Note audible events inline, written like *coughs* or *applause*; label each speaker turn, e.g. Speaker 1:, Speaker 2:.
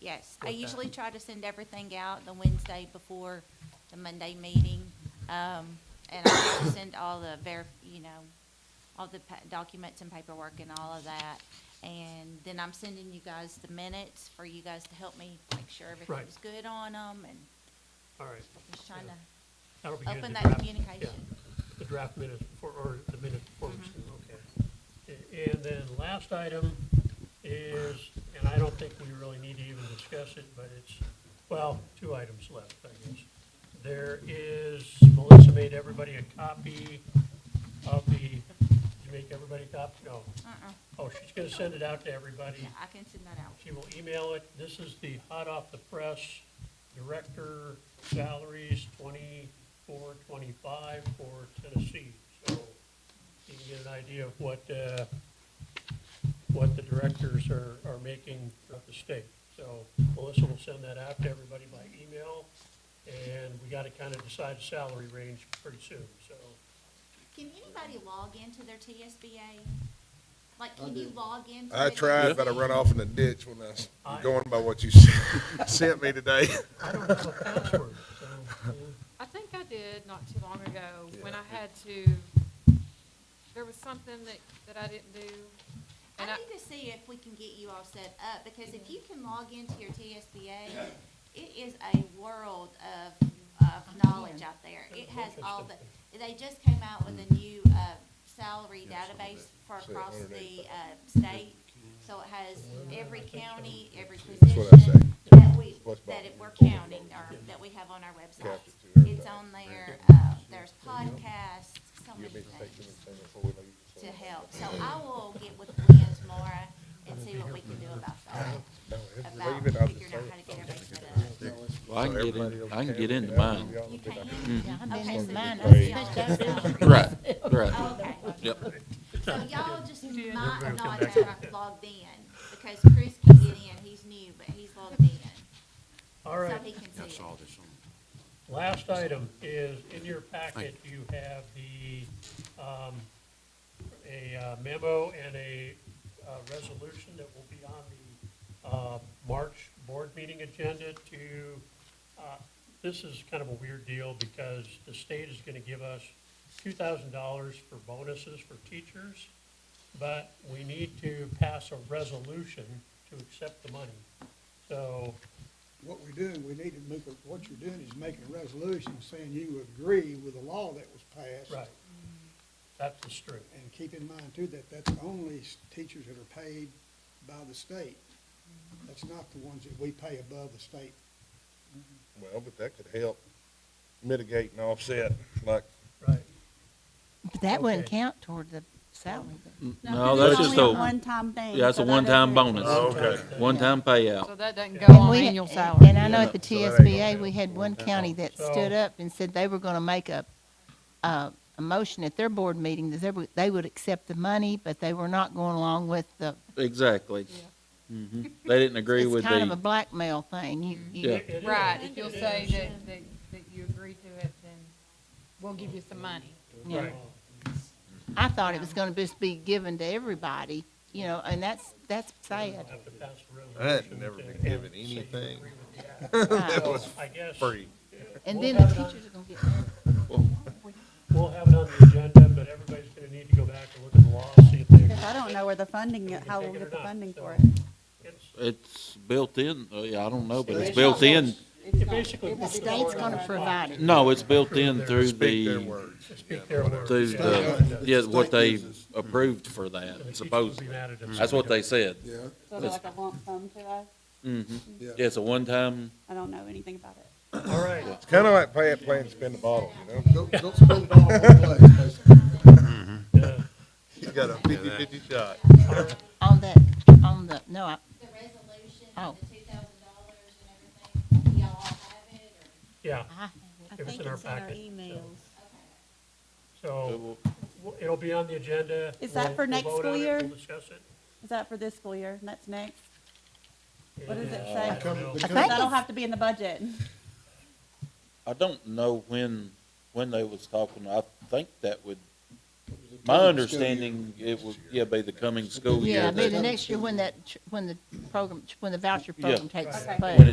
Speaker 1: Yes, I
Speaker 2: Okay.
Speaker 1: usually try to send everything out the Wednesday before the Monday meeting. Um, and I also *coughs* send all the ver, you know, all the pa- documents and paperwork and all of that. And then I'm sending you guys the minutes for you guys to help me make sure everything's good on them and
Speaker 2: All right.
Speaker 1: just trying
Speaker 2: Yeah.
Speaker 1: to
Speaker 2: That'll be good,
Speaker 1: open
Speaker 2: the
Speaker 1: that
Speaker 2: draft-
Speaker 1: communication.
Speaker 2: yeah, The draft minutes for, or the minutes for,
Speaker 1: Mm-hmm.
Speaker 2: okay. A- And then last item is, and I don't think we really need to even discuss it, but it's, well, two items left, I guess. There is, Melissa made everybody a copy of the, did you make everybody a copy? No.
Speaker 1: Uh-uh,
Speaker 2: Oh, she's gonna send it out to everybody.
Speaker 1: yeah, I can send that out.
Speaker 2: She will email it. This is the hot off the press director salaries twenty-four, twenty-five for Tennessee. So you can get an idea of what, uh, what the directors are, are making throughout the state. So Melissa will send that out to everybody by email. And we gotta kind of decide a salary range pretty soon, so.
Speaker 1: Can anybody log into their TSBA? Like,
Speaker 3: I
Speaker 1: can you
Speaker 3: do.
Speaker 1: log into?
Speaker 4: I
Speaker 1: it?
Speaker 4: tried, but I run off in the ditch when I was
Speaker 2: I-
Speaker 4: going by what you *laughs* s- sent me today. *laughs*
Speaker 2: I don't have a password, so. uh,
Speaker 5: I think I did not too long ago, when I
Speaker 4: Yeah.
Speaker 5: had to, there was something that, that I didn't do.
Speaker 1: I
Speaker 5: And I,
Speaker 1: need to see if we can get you all set up, because if you can log into your TSBA, it is a world of, of knowledge out there. It has all the, they just came out with a new, uh, salary database for
Speaker 4: Say
Speaker 1: across the,
Speaker 4: 185.
Speaker 1: uh, state. So it has every county, every
Speaker 4: what I
Speaker 1: position that we,
Speaker 4: What's
Speaker 1: that
Speaker 4: about-
Speaker 1: it we're counting, or that we have on our website.
Speaker 4: Capture to
Speaker 1: It's
Speaker 4: everything.
Speaker 1: on there, uh, there's podcasts, so many
Speaker 4: You want me to take them
Speaker 1: things
Speaker 4: and send them forward? like you
Speaker 1: to
Speaker 4: said?
Speaker 1: help. So I will get with Leah tomorrow and see what we can do about that,
Speaker 4: No, it's
Speaker 1: about
Speaker 4: leaving out the
Speaker 1: figuring out
Speaker 4: same.
Speaker 1: how to get everybody set up.
Speaker 6: Well, I
Speaker 4: So
Speaker 6: can get
Speaker 4: everybody
Speaker 6: in,
Speaker 4: else
Speaker 6: I can
Speaker 4: can.
Speaker 6: get into mine.
Speaker 4: Y'all
Speaker 1: You
Speaker 4: been out
Speaker 6: Mm-hmm.
Speaker 1: can?
Speaker 3: I've been
Speaker 1: Okay,
Speaker 3: in
Speaker 1: so
Speaker 3: mine.
Speaker 1: you
Speaker 3: I
Speaker 1: can
Speaker 3: switched
Speaker 1: y'all.
Speaker 3: out.
Speaker 6: Right, right.
Speaker 1: Okay.
Speaker 6: Yep.
Speaker 1: So y'all just might
Speaker 2: Everybody will
Speaker 1: not
Speaker 2: come back.
Speaker 1: have logged in, because Chris can get in, he's new, but he's logged in,
Speaker 2: All
Speaker 1: so
Speaker 2: right.
Speaker 1: he can see it.
Speaker 2: Last item is, in your packet, you have the, um, a uh, memo and a, uh, resolution that will be on the, uh, March board meeting agenda to, uh, this is kind of a weird deal because the state is gonna give us two thousand dollars for bonuses for teachers, but we need to pass a resolution to accept the money. So,
Speaker 7: What we're doing, we need to make, a- what you're doing is making a resolution saying you agree with the law that was passed.
Speaker 2: right, that's the string.
Speaker 7: And keep in mind too, that that's only s- teachers that are paid by the state. That's not the ones that we pay above the state.
Speaker 4: Well, but that could help mitigate and offset, like,
Speaker 2: Right.
Speaker 3: But that wouldn't
Speaker 2: Okay.
Speaker 3: count toward the salary.
Speaker 6: No, that's just a,
Speaker 8: One-time thing.
Speaker 6: yeah, that's a
Speaker 8: so that
Speaker 6: one-time
Speaker 8: doesn't-
Speaker 6: bonus.
Speaker 4: Okay.
Speaker 6: One-time payout.
Speaker 5: so that doesn't go on
Speaker 3: We-
Speaker 5: annual
Speaker 3: and-
Speaker 5: salary.
Speaker 3: And I know
Speaker 6: Yeah.
Speaker 3: at the
Speaker 4: So that ain't
Speaker 3: TSBA,
Speaker 4: gonna
Speaker 3: we had one county that
Speaker 2: So-
Speaker 3: stood up and said they were gonna make a, a, a motion at their board meeting that they would, they would accept the money, but they were not going along with the,
Speaker 6: Exactly. Mhm. They didn't agree with
Speaker 3: it's kind of a
Speaker 6: the,
Speaker 3: blackmail thing. You, you,
Speaker 6: Yeah.
Speaker 2: It- it is.
Speaker 5: Right, if you'll say that, that, that you agree to it, then we'll give you some money.
Speaker 3: yeah. I thought it was gonna just be given to everybody, you know, and that's, that's
Speaker 2: *laughs*
Speaker 3: sad.
Speaker 2: Have to pass a resolution
Speaker 4: I'd never
Speaker 2: to-
Speaker 4: been given
Speaker 2: say you
Speaker 4: anything.
Speaker 2: agree with the act.
Speaker 4: that
Speaker 3: Right.
Speaker 4: was
Speaker 2: I guess
Speaker 4: free.
Speaker 3: And then the teachers are gonna get mad.
Speaker 2: we'll have it on the agenda, but everybody's gonna need to go back and look at the law, see if they.
Speaker 8: Because I don't know where the funding, how we'll get the funding for it.
Speaker 2: It's-
Speaker 6: it's built in, uh, yeah, I don't know, but it's
Speaker 2: It's
Speaker 6: built in.
Speaker 2: It basically.
Speaker 3: The state's gonna provide it.
Speaker 6: No, it's built in through
Speaker 4: Speak their
Speaker 6: the,
Speaker 4: words.
Speaker 2: Speak their words.
Speaker 6: through
Speaker 2: yeah.
Speaker 6: the, yeah, what they
Speaker 9: State uses-
Speaker 6: approved for
Speaker 2: The
Speaker 6: that,
Speaker 2: teachers will be
Speaker 6: supposedly.
Speaker 2: mad at us.
Speaker 6: That's what they said.
Speaker 9: Yeah,
Speaker 8: So like a lump sum to us?
Speaker 9: yeah.
Speaker 6: It's a one-time,
Speaker 8: I don't know anything about it.
Speaker 2: All right,
Speaker 4: It's kind of like pay it, play and spin the bottle, you know?
Speaker 9: Don't, don't spend it all on one place, basically.
Speaker 2: uh,
Speaker 4: You got a fifty-fifty shot.
Speaker 3: On that, on the, no, I,
Speaker 1: The resolution,
Speaker 3: Oh.
Speaker 1: the two thousand dollars and everything, y'all all have it, or?
Speaker 2: yeah,
Speaker 3: I
Speaker 8: I
Speaker 2: It was
Speaker 8: think
Speaker 2: in our
Speaker 8: it's in our
Speaker 2: packet, so-
Speaker 8: emails.
Speaker 2: so w- it'll be on the agenda.
Speaker 8: Is that
Speaker 2: We'll-
Speaker 8: for
Speaker 2: we'll
Speaker 8: next
Speaker 2: vote
Speaker 8: school
Speaker 2: on it,
Speaker 8: year?
Speaker 2: We'll discuss it.
Speaker 8: Is that for this school year? That's next? What does it
Speaker 2: and,
Speaker 8: say?
Speaker 2: uh, I don't know.
Speaker 9: Become- become-
Speaker 3: think
Speaker 8: That'll
Speaker 3: it's,
Speaker 8: have to be in the budget.
Speaker 6: I don't know when, when they was talking, I think that would
Speaker 9: it was in the coming school
Speaker 6: My
Speaker 9: year.
Speaker 6: understanding, it would, yeah, by the coming school year.
Speaker 3: Yeah,
Speaker 6: that-
Speaker 3: but the next year when that, tr- when the program, when the voucher
Speaker 6: Yeah.
Speaker 3: program takes
Speaker 8: Okay.
Speaker 3: place.
Speaker 6: When it